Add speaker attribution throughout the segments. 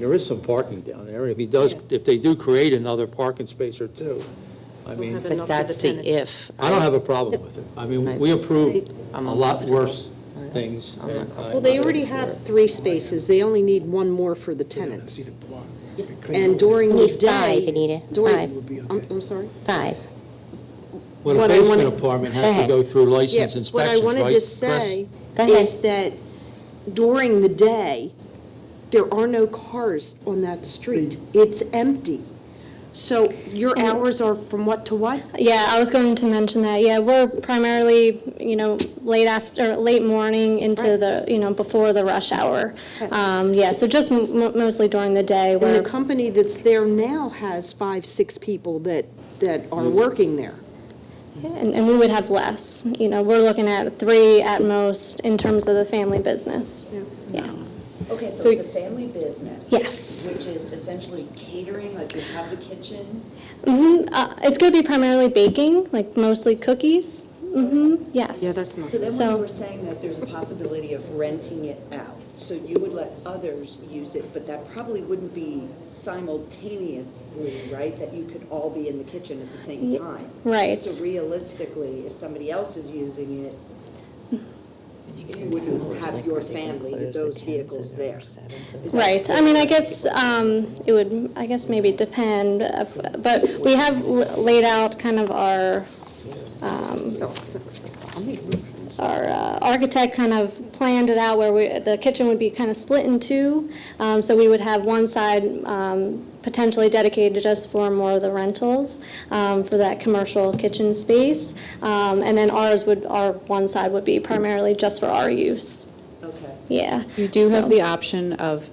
Speaker 1: There is some parking down there, if he does, if they do create another parking space or two, I mean,
Speaker 2: have
Speaker 3: But
Speaker 2: enough for the
Speaker 3: that's the
Speaker 2: tenants.
Speaker 3: if.
Speaker 1: I don't have a problem with it. I mean, we approved a
Speaker 4: um,
Speaker 3: I'm
Speaker 1: lot
Speaker 3: uncomfortable.
Speaker 1: worse things.
Speaker 3: I'm not comfortable.
Speaker 2: Well, they already have three spaces, they only need one more for the tenants. And during the
Speaker 4: Need five,
Speaker 2: day,
Speaker 4: Anita,
Speaker 2: during,
Speaker 4: five,
Speaker 2: I'm, I'm sorry?
Speaker 4: five.
Speaker 1: Well, a
Speaker 2: What I wanna-
Speaker 1: basement apartment has to go through
Speaker 2: Yeah,
Speaker 1: license
Speaker 2: What I
Speaker 1: inspections, right?
Speaker 2: wanted to
Speaker 1: Chris?
Speaker 2: say
Speaker 4: Go ahead.
Speaker 2: is that during the day, there are no cars on that street. It's empty. So your
Speaker 5: And-
Speaker 2: hours are from what to what?
Speaker 5: Yeah, I was going to mention that. Yeah, we're primarily, you know, late after, late morning into
Speaker 2: Right.
Speaker 5: the, you know, before the rush hour.
Speaker 2: Okay.
Speaker 5: Um, yeah, so just m- mo- mostly during the day
Speaker 2: And the
Speaker 5: where,
Speaker 2: company that's there now has five, six people that, that are working there.
Speaker 5: and, and we would have less. You know, we're looking at three at most in terms of the family business.
Speaker 6: Okay,
Speaker 5: So-
Speaker 6: so it's a family business?
Speaker 5: Yes.
Speaker 6: Which is essentially catering, like you have the kitchen?
Speaker 5: hmm Uh, it's going to be primarily baking, like mostly cookies. Mm-hmm. Yes.
Speaker 6: So then when
Speaker 5: So-
Speaker 6: you were saying that there's a possibility of renting it out, so you would let others use it, but that probably wouldn't be simultaneously, right? That you could all be in the kitchen at the same
Speaker 5: Ye-
Speaker 6: time?
Speaker 5: right.
Speaker 6: So realistically, if somebody else is using it, you wouldn't have your family with those vehicles there. Is that
Speaker 5: Right, I
Speaker 6: fair?
Speaker 5: mean, I guess, um, it would, I guess maybe depend, uh, but we have l- laid out kind of our, um, our uh, architect kind of planned it out where we, the kitchen would be kind of split in two. Um, so we would have one side, um, potentially dedicated just for more of the rentals, um, for that commercial kitchen space. Um, and then ours would, our one side would be primarily just for our use,
Speaker 6: Okay.
Speaker 5: yeah.
Speaker 7: You do
Speaker 5: So-
Speaker 7: have the option of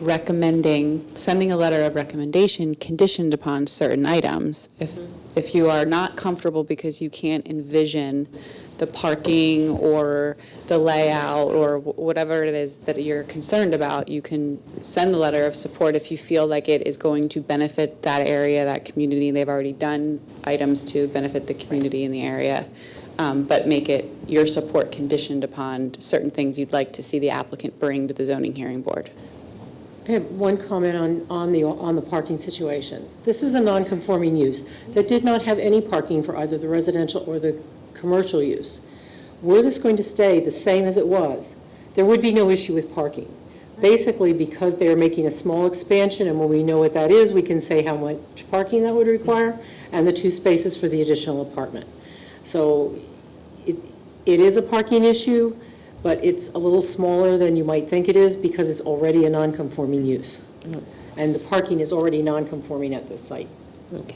Speaker 7: recommending, sending a letter of recommendation conditioned upon certain items. If, if you are not comfortable because you can't envision the parking or the layout or wh- whatever it is that you're concerned about, you can send the letter of support if you feel like it is going to benefit that area, that community. They've already done items to benefit the community in the area, um, but make it your support conditioned upon certain things you'd like to see the applicant bring to the zoning hearing board.
Speaker 8: I have one comment on, on the, on the parking situation. This is a non-conforming use that did not have any parking for either the residential or the commercial use. Were this going to stay the same as it was, there would be no issue with parking. Basically, because they are making a small expansion, and when we know what that is, we can say how much parking that would require, and the two spaces for the additional apartment. So it, it is a parking issue but it's a little smaller than you might think it is because it's already a non-conforming use. And the parking is already non-conforming at this site.
Speaker 4: Okay.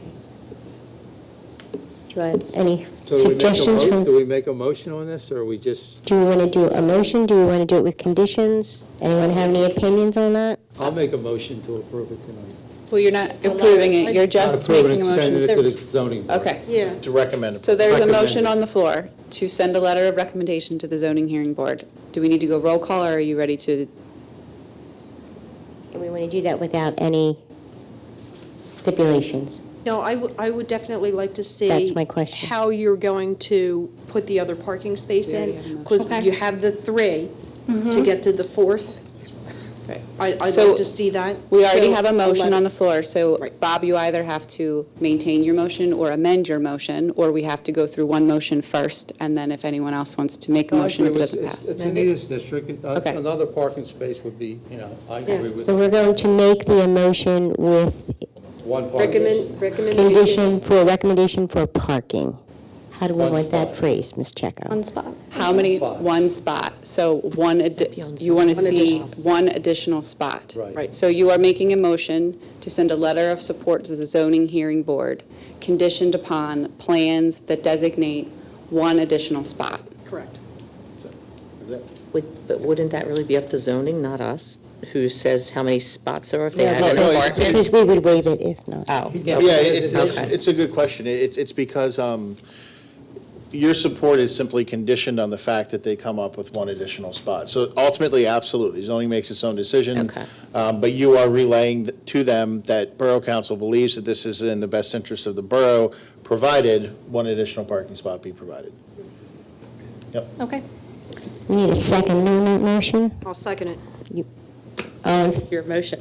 Speaker 4: Do you want any
Speaker 1: So do we make a
Speaker 4: suggestions
Speaker 1: mo-
Speaker 4: from,
Speaker 1: Do we make a motion on this, or we just,
Speaker 4: do you want to do a motion? Do you want to do it with conditions? Anyone have any opinions on that?
Speaker 1: I'll make a motion to approve it tonight.
Speaker 7: Well, you're not approving it, you're just
Speaker 1: Not approve it,
Speaker 7: making a motion.
Speaker 1: Send it to the zoning board.
Speaker 7: Okay.
Speaker 2: Yeah.
Speaker 9: To recommend.
Speaker 7: So there's a motion
Speaker 1: Recommended.
Speaker 7: on the floor to send a letter of recommendation to the zoning hearing board. Do we need to go roll call, or are you ready to
Speaker 4: And we want to do that without any stipulations.
Speaker 2: No, I would, I would definitely like to see.
Speaker 4: That's my question.
Speaker 2: How you're going to put the other parking space
Speaker 7: We already
Speaker 2: in,
Speaker 7: have enough.
Speaker 2: because
Speaker 5: Okay.
Speaker 2: you have the three to get to the fourth.
Speaker 7: Right.
Speaker 2: I, I'd
Speaker 7: So,
Speaker 2: like to see that.
Speaker 7: We already
Speaker 2: So,
Speaker 7: have a motion on
Speaker 2: eleven.
Speaker 7: the floor, so
Speaker 2: Right.
Speaker 7: Bob, you either have to maintain your motion or amend your motion, or we have to go through one motion first, and then if anyone else wants to make a
Speaker 1: No, I
Speaker 7: motion, if it
Speaker 1: agree with-
Speaker 7: doesn't
Speaker 1: it's-
Speaker 7: pass.
Speaker 1: It's Anita's district, and, uh,
Speaker 7: Okay.
Speaker 1: another parking space would be, you know, I agree with
Speaker 4: So we're going to make the motion with
Speaker 1: one parking.
Speaker 2: Recommend, recommendation.
Speaker 4: condition for, recommendation for parking. How do we
Speaker 1: One
Speaker 4: want that
Speaker 1: spot.
Speaker 4: phrased, Ms. Checo?
Speaker 5: One spot.
Speaker 7: How many,
Speaker 1: Spot.
Speaker 7: one spot, so one, addi-
Speaker 3: Beyond
Speaker 7: you want to
Speaker 2: One
Speaker 7: see
Speaker 2: additional.
Speaker 7: one additional spot.
Speaker 1: Right.
Speaker 2: Right.
Speaker 7: So you are making a motion to send a letter of support to the zoning hearing board, conditioned upon plans that designate one additional spot.
Speaker 2: Correct.
Speaker 3: Would- But wouldn't that really be up to zoning, not us, who says how many spots are if they
Speaker 4: No,
Speaker 3: add
Speaker 4: but-
Speaker 3: an
Speaker 9: no, it's-
Speaker 3: apartment?
Speaker 4: Because we would waive it if
Speaker 2: Uh,
Speaker 4: not.
Speaker 3: Oh.
Speaker 9: Yeah, it's, it's- it's a good question. It's, it's because, um, your support is simply conditioned on the fact that they come up with one additional spot. So ultimately, absolutely, zoning makes its own decision.
Speaker 3: Okay.
Speaker 9: Um, but you are relaying th- to them that Borough Council believes that this is in the best interest of the borough, provided one additional parking spot be provided.
Speaker 4: We need a second on that motion?
Speaker 2: I'll second it.
Speaker 10: All in
Speaker 4: Your motion.